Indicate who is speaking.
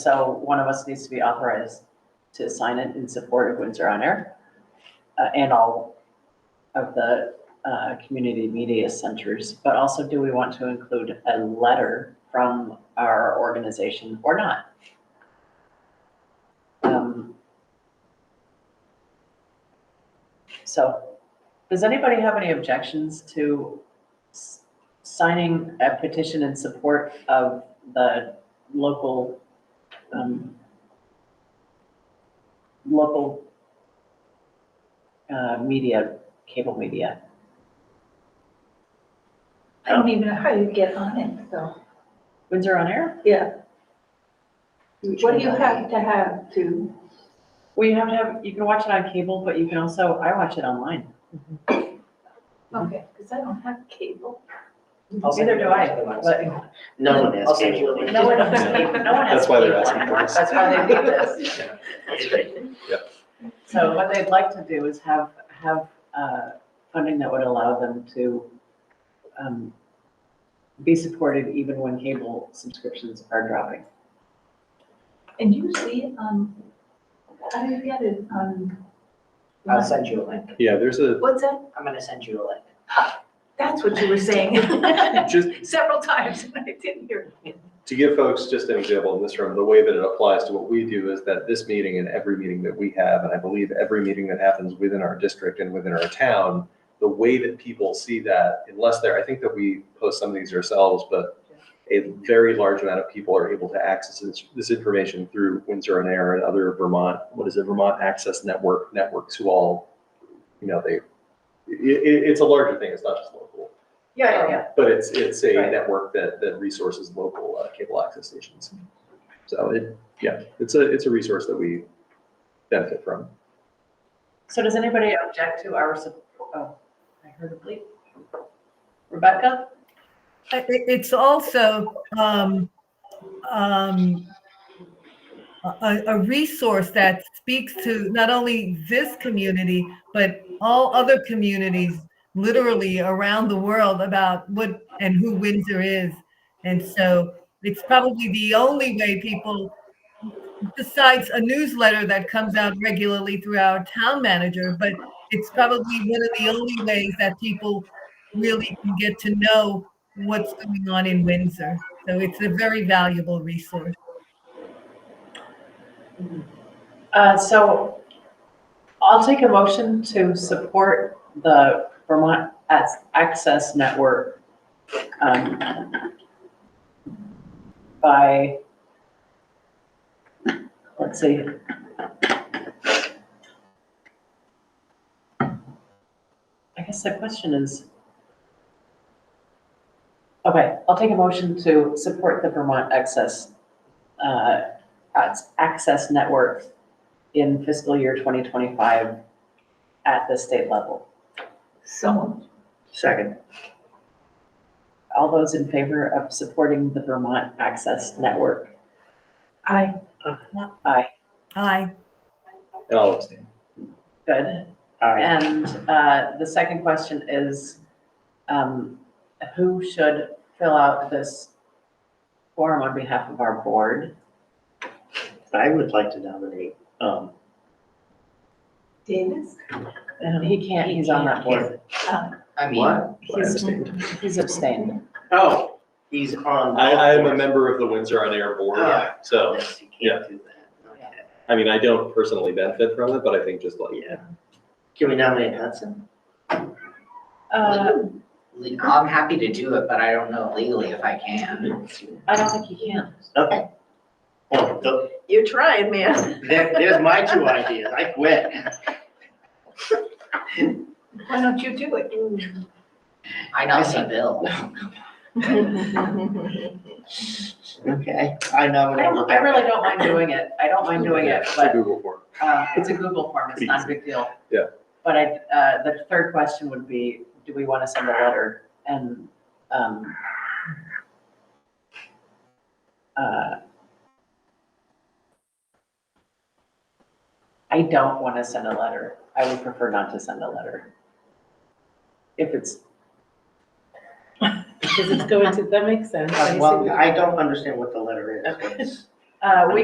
Speaker 1: So one of us needs to be authorized to sign it in support of Windsor On Air uh, and all of the uh, community media centers. But also, do we want to include a letter from our organization or not? Um, So, does anybody have any objections to s- signing a petition in support of the local um, local uh, media, cable media.
Speaker 2: I don't even know how you get on it, so.
Speaker 1: Windsor on Air?
Speaker 2: Yeah. What do you have to have to,
Speaker 1: Well, you have to have, you can watch it on cable, but you can also, I watch it online.
Speaker 3: Mm-hmm.
Speaker 2: okay, because I don't have cable.
Speaker 3: I'll send
Speaker 1: Neither
Speaker 3: you
Speaker 1: do
Speaker 3: the
Speaker 1: I,
Speaker 3: link.
Speaker 1: but
Speaker 4: No one has
Speaker 3: I'll send you
Speaker 4: cable.
Speaker 3: a link.
Speaker 1: no one has cable, no one has
Speaker 4: That's why they're
Speaker 1: cable
Speaker 4: asking for
Speaker 1: anymore.
Speaker 4: this.
Speaker 1: That's why they do this.
Speaker 4: That's right.
Speaker 1: So what they'd like to do is have, have uh, funding that would allow them to um, be supported even when cable subscriptions are dropping.
Speaker 2: And you see it on, how do you get it on?
Speaker 3: I'll send you a link.
Speaker 5: Yeah, there's a,
Speaker 2: What's that?
Speaker 3: I'm gonna send you a link.
Speaker 2: That's what you were saying
Speaker 5: just
Speaker 2: several times and I didn't hear. it.
Speaker 5: to give folks just an example in this room, the way that it applies to what we do is that this meeting and every meeting that we have, and I believe every meeting that happens within our district and within our town, the way that people see that, unless they're, I think that we post some of these ourselves, but a very large amount of people are able to access this, this information through Windsor and Air and other Vermont, what is it, Vermont Access Network, networks who all, you know, they, it, it, it's a larger thing, it's not just local.
Speaker 1: Yeah,
Speaker 5: Um, But it's, it's a
Speaker 1: Right.
Speaker 5: network that, that resources local uh, cable access stations. So it, yeah, it's a, it's a resource that we benefit from.
Speaker 1: So does anybody object to our, sup- oh, I heard a bleep. Rebecca?
Speaker 6: I- It's also um, um, a, a resource that speaks to not only this community, but all other communities literally around the world about what and who Windsor is. And so it's probably the only way people, besides a newsletter that comes out regularly through our town manager, but it's probably one of the only ways that people really can get to know what's going on in Windsor. So it's a very valuable resource.
Speaker 1: Uh, So I'll take a motion to support the Vermont Ac- Access Network um, by, let's see. I guess the question is, okay, I'll take a motion to support the Vermont Access, uh, Ac- Access Network in fiscal year 2025 at the state level.
Speaker 2: Someone,
Speaker 1: Second. All those in favor of supporting the Vermont Access Network?
Speaker 2: I,
Speaker 1: Aye,
Speaker 6: Aye.
Speaker 5: And I'll abstain.
Speaker 1: good. And uh, the second question is, um, who should fill out this form on behalf of our board?
Speaker 4: I would like to nominate, um,
Speaker 2: Davis, um,
Speaker 1: And He can't, he's on that board.
Speaker 3: I mean,
Speaker 4: what?
Speaker 5: I abstained.
Speaker 1: He's abstained.
Speaker 4: Oh, he's on.
Speaker 5: I, I am a member of the Windsor on Air
Speaker 1: Oh,
Speaker 5: board,
Speaker 4: Ah.
Speaker 5: so,
Speaker 4: Yes, you can't do that. Okay.
Speaker 5: I mean, I don't personally benefit from it, but I think just like,
Speaker 4: Yeah. Can we nominate Hudson?
Speaker 1: Uh,
Speaker 3: le- I'm happy to do it, but I don't know legally if I can.
Speaker 1: I don't think he can.
Speaker 4: Okay. Well, th-
Speaker 7: You're trying, man.
Speaker 4: there, there's my two ideas. I quit.
Speaker 2: why don't you do it?
Speaker 3: I know some bill.
Speaker 4: Okay, I
Speaker 1: I
Speaker 4: nominate
Speaker 1: don't, I really
Speaker 4: Rebecca.
Speaker 1: don't mind doing it. I don't mind doing it,
Speaker 5: it's a
Speaker 1: but
Speaker 5: Google form.
Speaker 1: Uh, It's a Google form, it's not a big deal.
Speaker 5: Yeah.
Speaker 1: But I, uh, the third question would be, do we want to send a letter and, um, uh, I don't want to send a letter. I would prefer not to send a letter. If it's,
Speaker 7: Because it's going to, that makes sense.
Speaker 4: Uh, Well, I don't understand what the letter is.
Speaker 7: Okay.
Speaker 1: uh, we